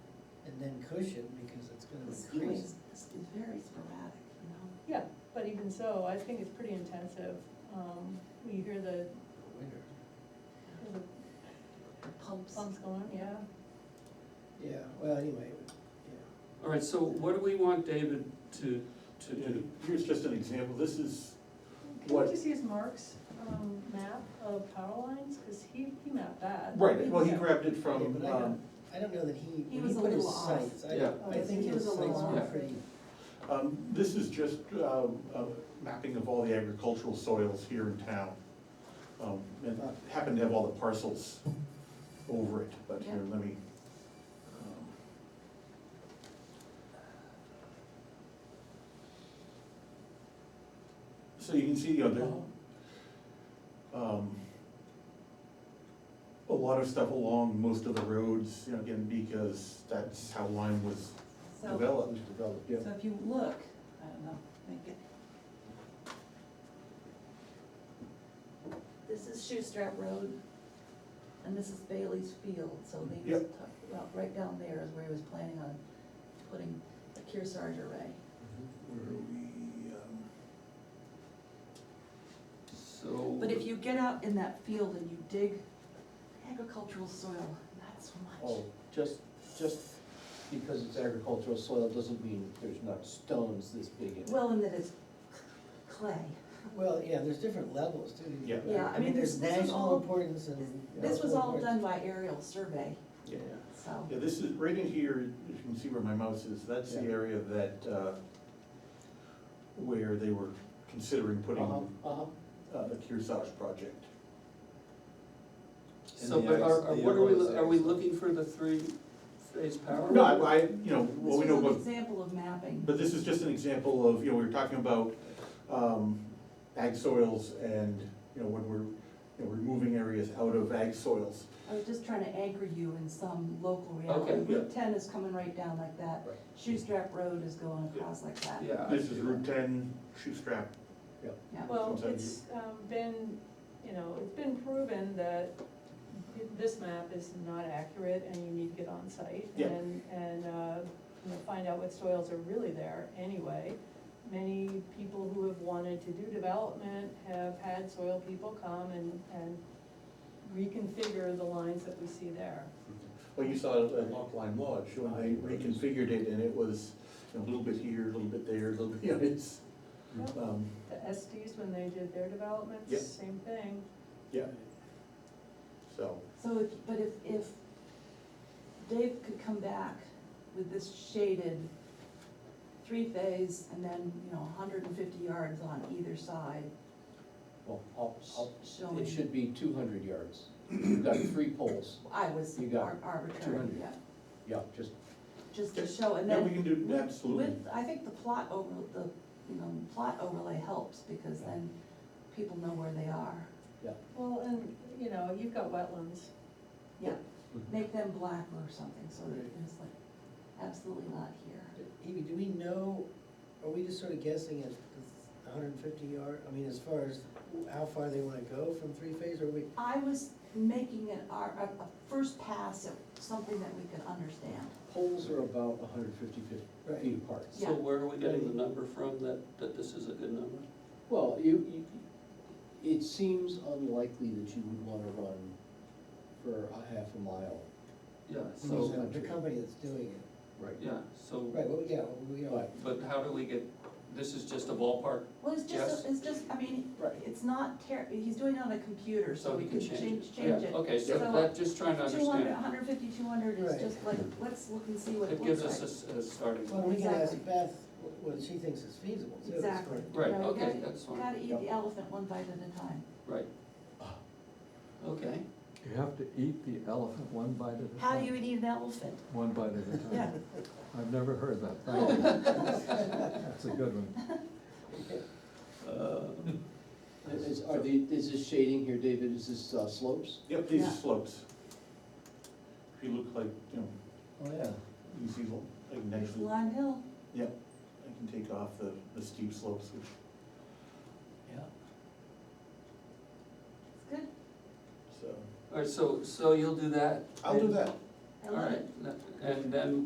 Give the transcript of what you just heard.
then cushion because it's The gonna skiing increase. is, is is very sporadic, you know? Yeah, but even so, I think it's pretty intensive. Um, we hear the, for winter. hear the The pumps. pumps going, yeah. Yeah, well, anyway, it would- yeah. All right, so what do we want David to, to Yeah, do? Here's just an example, this is, Can we What- just use Mark's, um, map of power lines, cause he, he mapped that. right, well, he Yeah. grabbed it Yeah, from, but I um, don't- I don't know that he, He when he was a put his little off. Oh, sites, I, Yeah. I think He his was a little sites were off. pretty, Um, This is just um, a mapping of all the agricultural soils here in town. Um, And I happen to have all the parcels over it, but here, let me. um, So you can see, you know, there, um, a lot of stuff along most of the roads, you know, again, because that's how Lyme was So, developed. Developed, so if you look, I don't know, make it, this is Shoestrap Road, and this is Bailey's Field, so they used to Yep. talk about, right down there is where he was planning on putting the Kearsarge array. Where are we, um, So. But if you get out in that field and you dig agricultural soil, not so much. Oh, just, just because it's agricultural soil doesn't mean there's not stones this big in it. Well, and that it's clay. well, yeah, there's different levels too. Yeah. Yeah, I mean, this- there's this was national all- importance and. you know, This was all local done by aerial survey, importance. Yeah. so. Yeah, this is, right in here, you can see where my mouse is, that's the Yeah. area that, uh, where they were considering putting Uh-huh, uh-huh. uh, the Kearsarge project. So, And the but are, ag- are, the what are we, yellow are we is- looking for the three-phase power? Uh-huh. No, I, I, you know, what we This know was an about example of mapping. But this is just an example of, you know, we were talking about, um, ag soils and, you know, when we're, you know, removing areas out of ag soils. I was just trying to anchor you in some local reality. Okay, yeah. Route ten is coming right down like that. Right. Shoestrap Road is going across like that. Yeah. I This is see Route that. ten, Shoestrap, Yeah. Well, Sometimes it's um, been, you know, it's been proven that this map is not accurate and you need to get on site Yeah. and, and, uh, you know, find out what soils are really there anyway. Many people who have wanted to do development have had soil people come and, and reconfigure the lines that we see there. Well, you saw it at Lock Line Lodge, when they reconfigured it, and it was you know, a little bit here, a little bit there, a little bit, you know, it's, Yep. um, The Estes, when they did their Yep. developments, same thing. yeah. So, So, if- but if, if Dave could come back with this shaded three-phase and then, you know, hundred and fifty yards on either side, Well, I'll, I'll, showing. it should be two hundred yards. You've got three poles, I was You got ar- arbitrary, 200. yeah, yeah, just, just to Yeah, show, and yeah, then. we can do, with- absolutely. With, I think the plot over, the, you know, plot overlay helps, because then people know where they are. yeah. Well, and, you know, you've got wetlands. Yeah, Mm-hmm. Mhm. make them black or something, so that Right. it's like, absolutely not here. Evie, do we know, are we just sort of guessing at hundred and fifty yard, I mean, as far as how far they wanna go from three-phase, or we, I was making an, ar- a, a first pass at something that we could understand. Poles are about 150 feet- Right. feet apart. So Yeah. where are we getting the number from, that, that this is a good number? Well, you, you, it seems unlikely that you would wanna run for a half a mile. Yeah, Those so, are- the company that's doing it? Right. yeah, so, Right, well, yeah, well, you know, Right. but how do we get, this is just a ballpark, Well, it's just, Yes. a- it's just, I mean, Right. it's not ter, he's doing it on a computer, so so we we can could change change, it? change Yeah, it. Okay, so So, that, just trying to Two hundred, understand, hundred fifty, two hundred Right. is just like, let's look and see what it it looks gives like. us a s- a, starting well, point. we can ask Exactly. Beth wh- what she thinks is feasible too. as far Exactly. as- Right, Yeah, we okay, gotta- that's fine. Gotta eat Yep. the elephant one bite at a time. right. Ah. Okay, You have to eat the elephant one bite at a time. How do you eat an elephant? One bite at a time. Yeah. I've never heard that, thank you. That's a good one. uh, Is, are the, is this shading here, David, is this uh, slopes? Yep, these Yeah. are slopes. If you look like, you know, Oh, yeah. you see, well, I can It's actually, Lime Hill. yep, I can take off the, the steep slopes, which Yeah. It's good. So. all right, so, so you'll do that? I'll do that. I All love it. right, and then